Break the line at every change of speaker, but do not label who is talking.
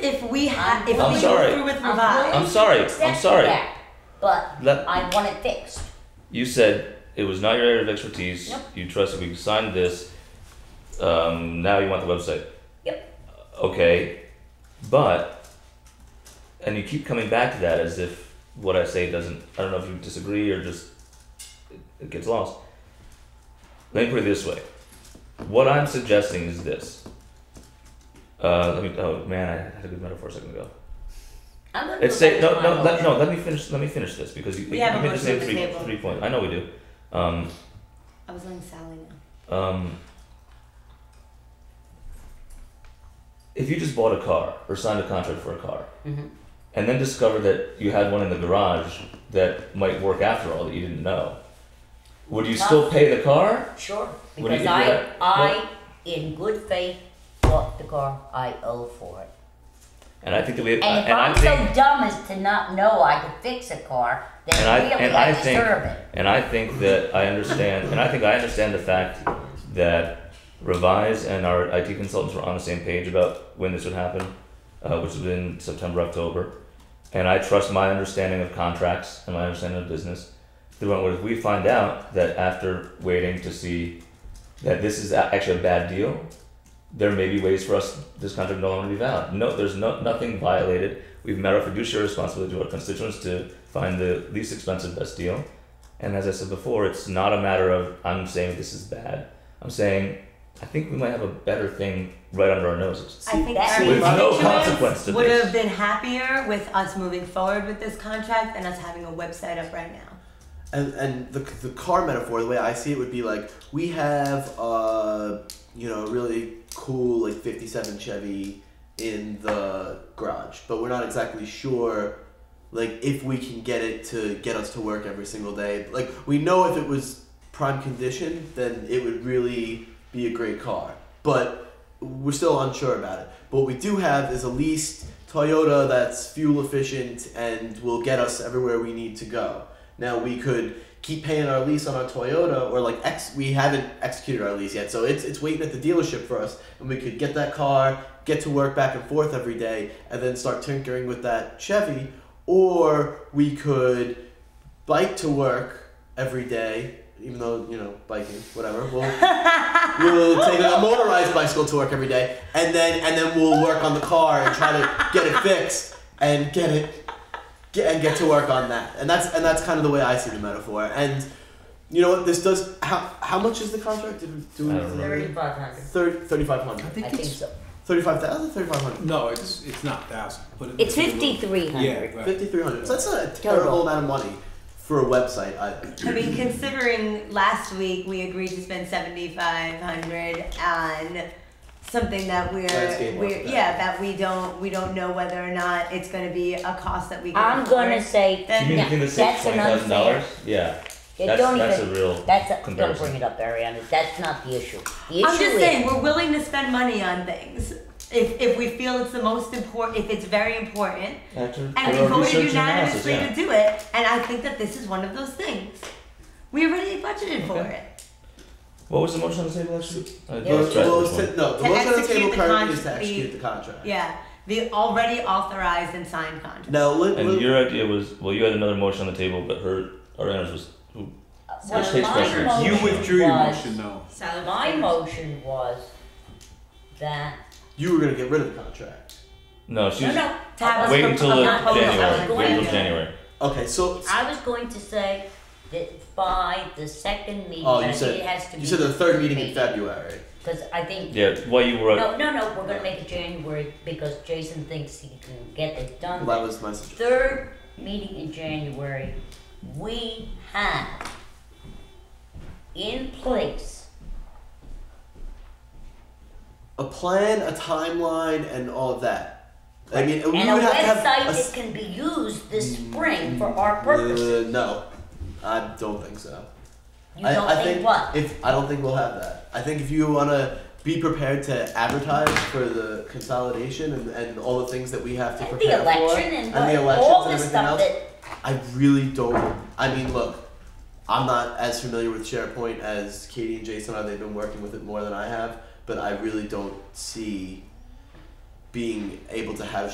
we had, if
I'm
we go
sorry.
through with
I'm
revised,
I'm sorry. I'm sorry.
Setback, But
Let,
I want it fixed.
you said it was not your area of expertise.
Yep.
You trusted we signed this. Um, now you want the website.
Yep.
Okay, but and you keep coming back to that as if what I say doesn't. I don't know if you disagree or just it, it gets lost. Let me put it this way. What I'm suggesting is this. Uh, let me. Oh man, I had a good metaphor a second ago.
I'm gonna
It's
go
say
back to
no
my
no
old-
let, no. Let me finish. Let me finish this because you,
We
you
have a
made the
motion
same
on the
three
table.
three points. I know we do. Um,
I was on Sally now.
um, if you just bought a car or signed a contract for a car,
Mhm.
and then discovered that you had one in the garage that might work after all that you didn't know, would you still pay the car?
Sure,
What do you
because
think
I,
of that?
I, in good faith, bought the car, I owe for it.
And I think that we
And if
and I
I'm
think
so dumb as to not know I could fix a car,
And I-
then really
and I
I
think-
deserve it.
and I think that I understand and I think I understand the fact that Revise and our IT consultants were on the same page about when this would happen, uh, which was in September October, and I trust my understanding of contracts and my understanding of business. They went, "Well, if we find out that after waiting to see that this is a- actually a bad deal, there may be ways for us this contract no longer to be valid. No, there's no nothing violated. We've met our fiduciary responsibility to our constituents to find the least expensive best deal. And as I said before, it's not a matter of I'm saying this is bad. I'm saying I think we might have a better thing right under our noses.
I think
That's
our
with
love
no
interest
consequence to
would
this.
have been happier with us moving forward with this contract than us having a website up right now.
And and the the car metaphor, the way I see it, would be like we have uh you know a really cool like '57 Chevy in the garage, but we're not exactly sure like if we can get it to get us to work every single day. Like we know if it was prime condition, then it would really be a great car, but we're still unsure about it. But what we do have is a leased Toyota that's fuel efficient and will get us everywhere we need to go. Now we could keep paying our lease on our Toyota, or like ex- we haven't executed our lease yet, so it's it's waiting at the dealership for us, and we could get that car, get to work back and forth every day, and then start tinkering with that Chevy, or we could bike to work every day. Even though you know biking, whatever, we'll we'll take a motorized bicycle to work every day, and then and then we'll work on the car and try to get it fixed and get it get, and get to work on that. And that's and that's kind of the way I see the metaphor. And you know what? This does. How how much is the contract? Did we do?
I don't remember.
Thirty-five hundred.
Thirty-five
I
hundred.
I
think
think
it's,
so.
Thirty-five thousand. Thirty-five hundred.
no, it's, it's not thousand, but it-
It's fifty-three
Yeah,
hundred.
right.
Fifty-three hundred. So that's not a terrible amount of money for a website. Either.
I mean, considering last week we agreed to spend seventy-five hundred on something that we're,
Landscape
we're,
architect.
yeah, that we don't, we don't know whether or not it's gonna be a cost that we can
I'm gonna
afford.
say,
Then-
you mean
no,
the thing that saves
that's an
twenty thousand
unfair.
dollars? Yeah.
It
That's
don't
that's
even-
a real
That's, a- don't
comparison.
bring it up, Ariana, that's not the issue. The
I'm
issue
just
is,
saying, we're willing to spend money on things if, if we feel it's the most important, if it's very important,
After
and
thorough
we voted
research and analysis,
unanimously
yeah.
to do it. And I think that this is one of those things. We already budgeted for
Okay.
it.
What was the motion on the table actually? Uh, I
Yeah.
lost track
Well,
of
it's
this one.
to- no, the
To
motion on the
execute
table
the
currently is to
contract-
execute the contract.
Yeah, the already authorized and signed contract.
Now, li-
And
li-
your idea was well, you had another motion on the table, but her Ariana's was
well,
takes precedence.
my
You
motion
withdrew your
was-
motion though.
Sally.
My motion was that,
you were gonna get rid of the contract.
no, she
no,
was
no.
To have us
wait
from-
until
from
the
not public-
I
January.
was
Wait
going
until
to-
January.
Okay, so
I was going to say that by the second meeting,
Oh, you
and
said-
it has to be.
you said the third meeting in February.
Because I think,
Yeah, while you were
no, no, no, we're gonna make it January because Jason thinks he can get it
Well,
done.
that was my suggestion.
Third meeting in January, we have in place,
a plan, a timeline, and all of that. I mean, we
and
would
a
have to have
website
a Mm,
that
s-
can be used this spring for our purposes.
Uh, no, I don't think so.
You
I, I
don't think what?
If I don't think we'll have that. I think if you want to be prepared to advertise for the consolidation and, and all the things that we have to
And
prepare
the
for,
election and,
and the elections
all
and
the
everything
stuff
else,
that
I really don't. I mean, look, I'm not as familiar with SharePoint as Katie and Jason are. They've been working with it more than I have, but I really don't see being able to have